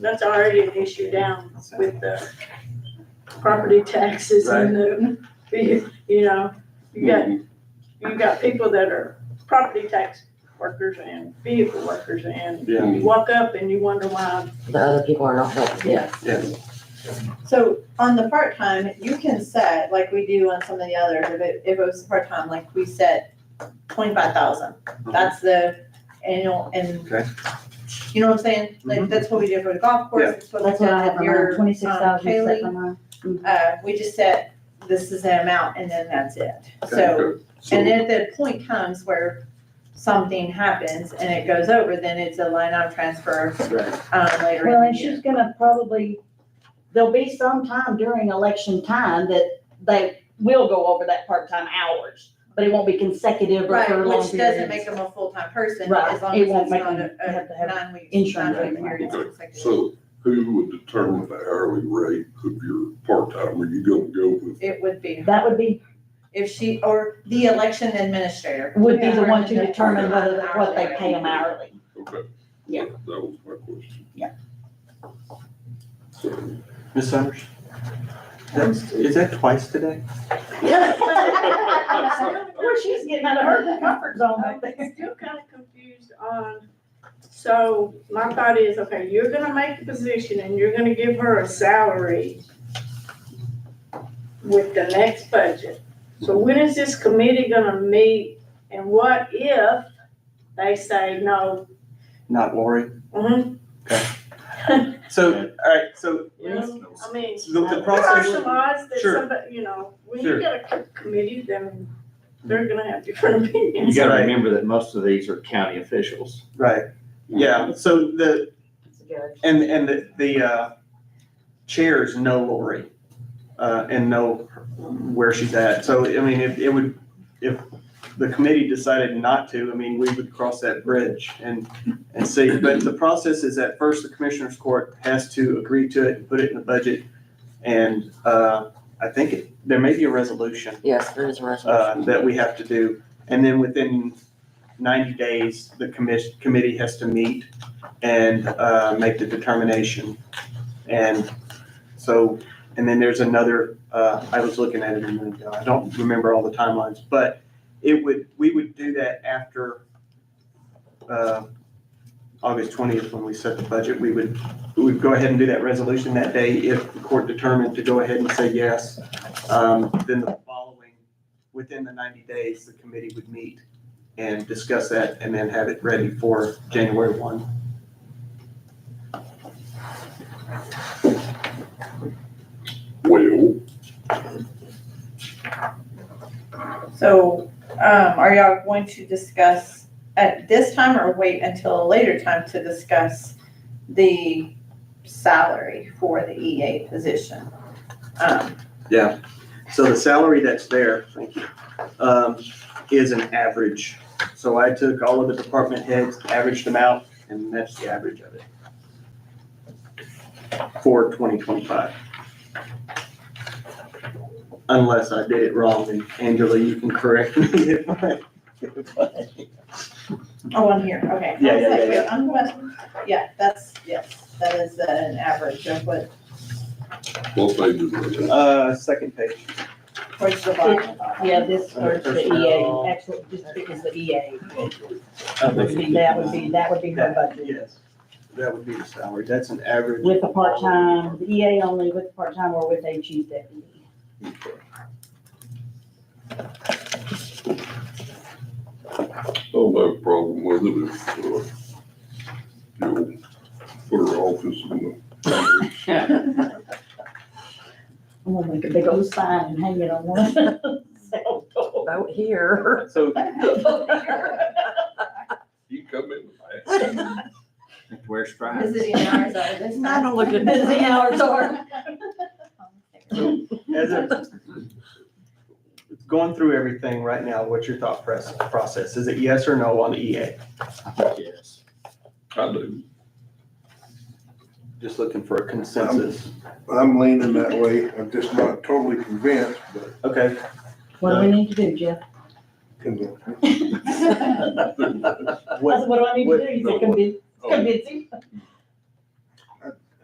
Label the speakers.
Speaker 1: that's already an issue down with the property taxes and the, you you know, you got, you got people that are property tax workers and vehicle workers and
Speaker 2: Yeah.
Speaker 1: you walk up and you wonder why,
Speaker 3: The other people are not helping.
Speaker 1: yeah.
Speaker 2: Yes.
Speaker 4: So on the part-time, you can set, like we do on some of the others, if it, if it was part-time, like we set twenty-five thousand. That's the annual and,
Speaker 2: Okay.
Speaker 4: you know what I'm saying? Like,
Speaker 2: Mhm.
Speaker 4: that's what we did for the golf course,
Speaker 2: Yeah.
Speaker 4: it's what we
Speaker 5: That's what I
Speaker 4: did
Speaker 5: have
Speaker 4: for
Speaker 5: in mind,
Speaker 4: your, um,
Speaker 5: twenty-six thousand is set
Speaker 4: Kaylee.
Speaker 5: for mine.
Speaker 4: Uh, we just set, this is the amount and then that's it.
Speaker 2: Okay,
Speaker 4: So,
Speaker 2: good. So-
Speaker 4: and if the point comes where something happens and it goes over, then it's a line item transfer,
Speaker 2: Right,
Speaker 4: um, later
Speaker 5: Well,
Speaker 4: in
Speaker 5: and
Speaker 4: the year.
Speaker 5: she's gonna probably, there'll be some time during election time that they will go over that part-time hours, but it won't be consecutive or for
Speaker 4: Right,
Speaker 5: long
Speaker 4: which doesn't make
Speaker 5: periods.
Speaker 4: them a full-time person,
Speaker 5: Right,
Speaker 4: as long
Speaker 5: it
Speaker 4: as
Speaker 5: won't
Speaker 4: it's
Speaker 5: make
Speaker 4: not
Speaker 5: them have to
Speaker 4: a, a
Speaker 5: have
Speaker 4: nine-week,
Speaker 5: insurance or
Speaker 4: nine-week
Speaker 5: anything like
Speaker 4: period.
Speaker 5: that.
Speaker 4: something like that.
Speaker 6: So who would determine the hourly rate of your part-time? Are you gonna go with
Speaker 4: It would be,
Speaker 5: That would be,
Speaker 4: if she, or the election administrator.
Speaker 5: would be the
Speaker 4: Yeah.
Speaker 5: one to determine whether, what they pay them hourly.
Speaker 6: Okay.
Speaker 5: Yeah.
Speaker 6: That was my question.
Speaker 5: Yeah.
Speaker 6: So,
Speaker 2: Ms. Summers? That's, is that twice today?
Speaker 5: Well, she's getting out of her comfort zone
Speaker 1: I'm
Speaker 5: up there.
Speaker 1: Uh, still kind of confused on, so my thought is, okay, you're gonna make the position and you're gonna give her a salary with the next budget. So when is this committee gonna meet and what if they say no?
Speaker 2: Not Lori?
Speaker 1: Mhm,
Speaker 2: So, all right, so,
Speaker 1: you know, I mean,
Speaker 2: so the- the
Speaker 1: there are
Speaker 2: process,
Speaker 1: some odds that
Speaker 2: Sure.
Speaker 1: somebody, you know, when you
Speaker 2: Sure.
Speaker 1: get a co- committee, then they're gonna have different opinions.
Speaker 7: You gotta
Speaker 2: Right.
Speaker 7: remember that most of these are county officials.
Speaker 2: right, yeah, so the, and, and the, the, uh, chairs know Lori, uh, and know where she's at, so, I mean, if, it would, if the committee decided not to, I mean, we would cross that bridge and, and see, but the process is that first the commissioners court has to agree to it, and put it in the budget, and, uh, I think it, there may be a resolution
Speaker 3: Yes, there is a
Speaker 2: uh,
Speaker 3: resolution.
Speaker 2: that we have to do. And then within ninety days, the commission, committee has to meet and, uh, make the determination. And so, and then there's another, uh, I was looking at it a minute ago, I don't remember all the timelines, but it would, we would do that after, uh, August twentieth, when we set the budget, we would, we would go ahead and do that resolution that day if the court determined to go ahead and say yes. Um, then the following within the ninety days, the committee would meet and discuss that and then have it ready for January one.
Speaker 6: Well,
Speaker 4: So, um, are y'all going to discuss at this time or wait until a later time to discuss the salary for the EA position? Um,
Speaker 2: So the salary that's there, thank you, um, is an average. So I took all of the department heads, averaged them out, and that's the average of it. For twenty twenty-five. Unless I did it wrong, and Angela, you can correct me if I. if I-
Speaker 4: oh, I'm here, okay.
Speaker 2: Yeah, yeah, yeah,
Speaker 4: I was like, wait,
Speaker 2: yeah.
Speaker 4: I'm gonna, yeah, that's, yes, that is an average of what,
Speaker 6: both pages are there.
Speaker 2: Uh, second page.
Speaker 4: towards the bottom.
Speaker 5: Yeah, this or the EA, actually, just because the EA, would be, that would be, that would be her
Speaker 2: That,
Speaker 5: budget.
Speaker 2: yes, that would be the salary, that's an average.
Speaker 5: With the part-time, the EA only with part-time or with a chief deputy.
Speaker 6: I don't have a Oh, problem with it if, uh, you'll put her office in the.
Speaker 5: I'm gonna make a big old sign and hang it on one of the cell door.
Speaker 3: Vote here.
Speaker 2: So,
Speaker 6: You come in the back.
Speaker 7: Wear stripes.
Speaker 4: Visiting hours are this time.
Speaker 3: I don't look at-
Speaker 5: Busy hours are.
Speaker 2: as a, going through everything right now, what's your thought press, process, is it yes or no on E EA?
Speaker 7: Yes.
Speaker 6: I do.
Speaker 2: Just looking for a consensus.
Speaker 8: I'm leaning that way, I'm just not totally convinced, but
Speaker 2: Okay,
Speaker 5: What do we need to do, Jeff?
Speaker 8: convinced.
Speaker 5: What,
Speaker 6: What-
Speaker 5: what do I need to do? You
Speaker 6: no,
Speaker 5: said convince,
Speaker 6: oh.
Speaker 5: convince him?